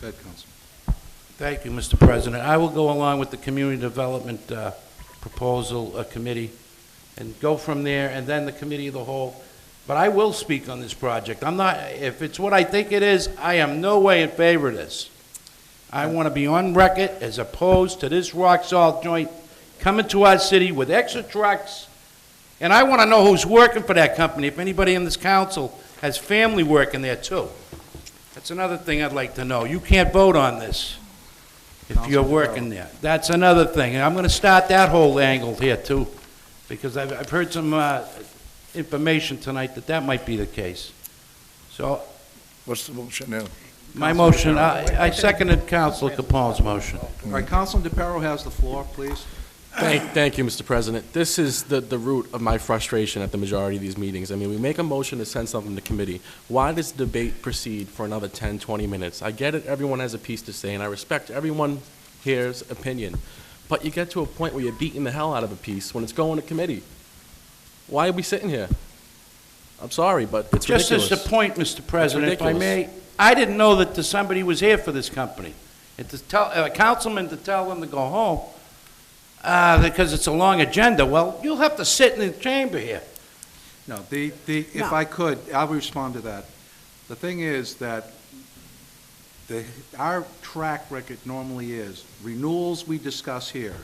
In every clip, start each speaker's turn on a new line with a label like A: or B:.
A: Go ahead, Councilman.
B: Thank you, Mr. President. I will go along with the Community Development uh, Proposal uh, Committee and go from there, and then the Committee of the Whole. But I will speak on this project. I'm not, if it's what I think it is, I am no way in favor of this. I want to be on record as opposed to this rock salt joint coming to our city with extra trucks. And I want to know who's working for that company, if anybody in this council has family working there too. That's another thing I'd like to know. You can't vote on this if you're working there. That's another thing, and I'm gonna start that whole angle here too, because I've, I've heard some, uh, information tonight that that might be the case. So,
C: What's the motion now?
B: my motion, I, I seconded Council Capone's motion.
A: All right, Councilman DePiero has the floor, please.
D: Thank, thank you, Mr. President. This is the, the root of my frustration at the majority of these meetings. I mean, we make a motion to send something to committee. Why does debate proceed for another 10, 20 minutes? I get it, everyone has a piece to say, and I respect everyone here's opinion. But you get to a point where you're beating the hell out of a piece when it's going to committee. Why are we sitting here? I'm sorry, but it's
B: Just
D: ridiculous.
B: as the point, Mr. President, if I
D: ridiculous.
B: may, I didn't know that the- somebody was here for this company. And to tell, a councilman to tell them to go home, uh, because it's a long agenda, well, you'll have to sit in the chamber here.
A: No, the, the, if I could, I'll respond to that. The thing is that the, our track record normally is renewals we discuss here.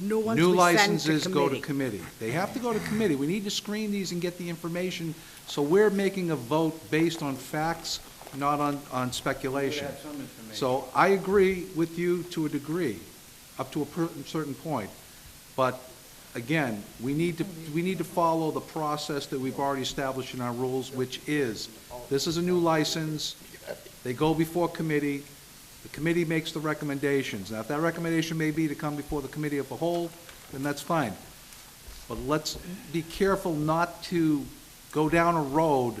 E: New ones
A: New
E: we send to
A: licenses go to
E: committee.
A: committee. They have to go to committee. We need to screen these and get the information, so we're making a vote based on facts, not on, on speculation. So I agree with you to a degree, up to a per- certain point. But again, we need to, we need to follow the process that we've already established in our rules, which is, this is a new license, they go before committee, the committee makes the recommendations. Now, if that recommendation may be to come before the committee of the whole, then that's fine. But let's be careful not to go down a road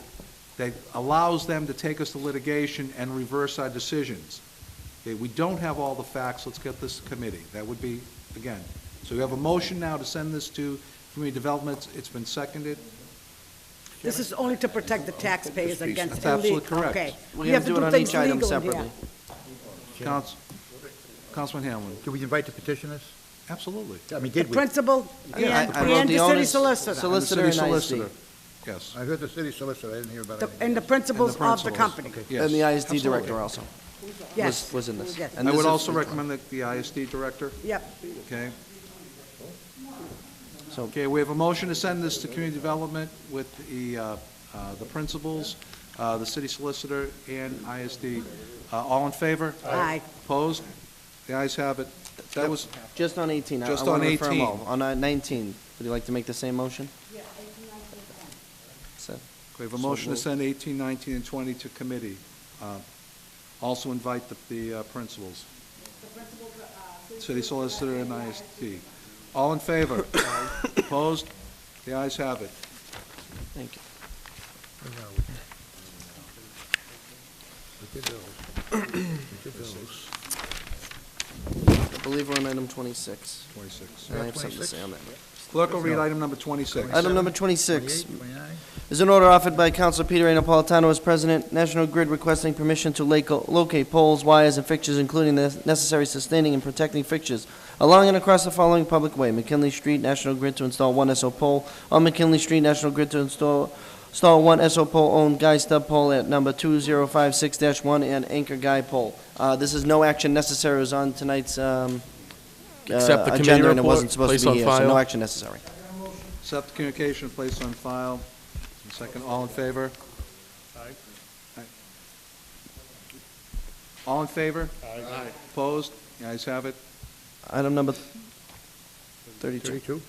A: that allows them to take us to litigation and reverse our decisions. Okay, we don't have all the facts, let's get this to committee. That would be, again, so we have a motion now to send this to Community Development, it's been seconded.
E: This is only to protect the taxpayers against
A: That's
E: illegal.
A: absolutely correct.
E: Okay.
F: We're
E: We
F: going
E: have
F: to
E: to
F: do it
E: do
F: on each
E: things
F: item
E: legal here.
F: separately.
A: Council, Councilman Hamlin,
G: Do we invite the petitioners?
A: absolutely.
G: I mean,
E: The
G: did we?
E: principal and,
F: I wrote
E: and the city
F: owners-
E: solicitor,
A: And the
F: Solicitor
A: city
F: and
A: solicitor.
F: ISD.
A: Yes,
G: I heard the city solicitor, I didn't hear about
E: The-
G: anything.
E: and the principals of the
A: principals.
E: company.
A: yes.
F: And the ISD
A: absolutely.
F: director also was,
E: Yes.
F: was in this.
E: Yes.
F: And
A: I
F: this
A: would
F: is-
A: also recommend that the ISD director,
E: Yep.
A: okay?
F: So-
A: Okay, we have a motion to send this to community development with the, uh, uh, the principals, uh, the city solicitor, and ISD. Uh, All in favor?
E: Aye.
A: Opposed? The ayes have it. That was,
F: Just on 18. I- I
A: Just
F: wanna
A: on
F: refer 'em
A: 18.
F: all. On uh, 19, would you like to make the same motion? So-
A: we have a motion to send 18, 19, and 20 to committee. Uh, Also invite the, the uh, principals. City solicitor and ISD. All in favor? Opposed? The ayes have it.
F: Thank you. I believe we're on item 26.
A: 26.
F: And I have something to say on that.
A: Clerk will read item number 26.
F: Item number 26,
G: 28, 29?
F: Is an order offered by Council Peter A. Napolitano as president, National Grid requesting permission to laco- locate poles, wires, and fixtures, including the necessary sustaining and protecting fixtures, along and across the following public way, McKinley Street, National Grid to install one SO pole, on McKinley Street, National Grid to install, install one SO pole owned guy stub pole at number 2056-1 and anchor guy pole. Uh, This is no action necessary, it was on tonight's um, uh,
D: Accept the committee
F: agenda, and it
D: report,
F: wasn't supposed
D: place
F: to
D: on
F: be here, so
D: file.
F: no action necessary.
A: Accept the communication placed on file. And Second, all in favor? Aye. All in favor? Aye. Opposed? The ayes have it.
F: Item number 32.
G: 32?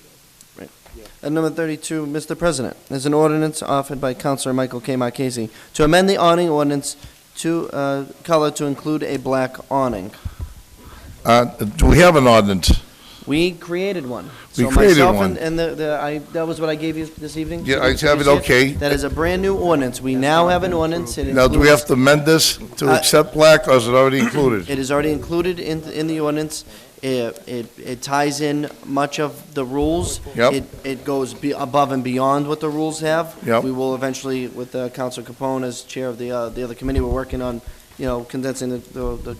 F: Item number 32, Mr. President, is an ordinance offered by Councilor Michael K. Marchese to amend the awning ordinance to, uh, color to include a black awning.
C: Uh, Do we have an ordinance?
F: We created one.
C: We
F: So
C: created
F: myself
C: one.
F: and- And the- the, I, that was what I gave you this evening?
C: Yeah, I have it,
F: You see
C: okay.
F: That is a brand-new ordinance. We now have an ordinance. It
C: Now, do we
F: includes-
C: have to amend this to
F: Uh,
C: accept black, or is it already included?
F: It is already included in, in the ordinance. It, it, it ties in much of the rules.
C: Yep.
F: It, it goes be, above and beyond what the rules have.
C: Yep.
F: We will eventually, with uh, Council Capone as chair of the, uh, the other committee, we're working on, you know, condensing the, the the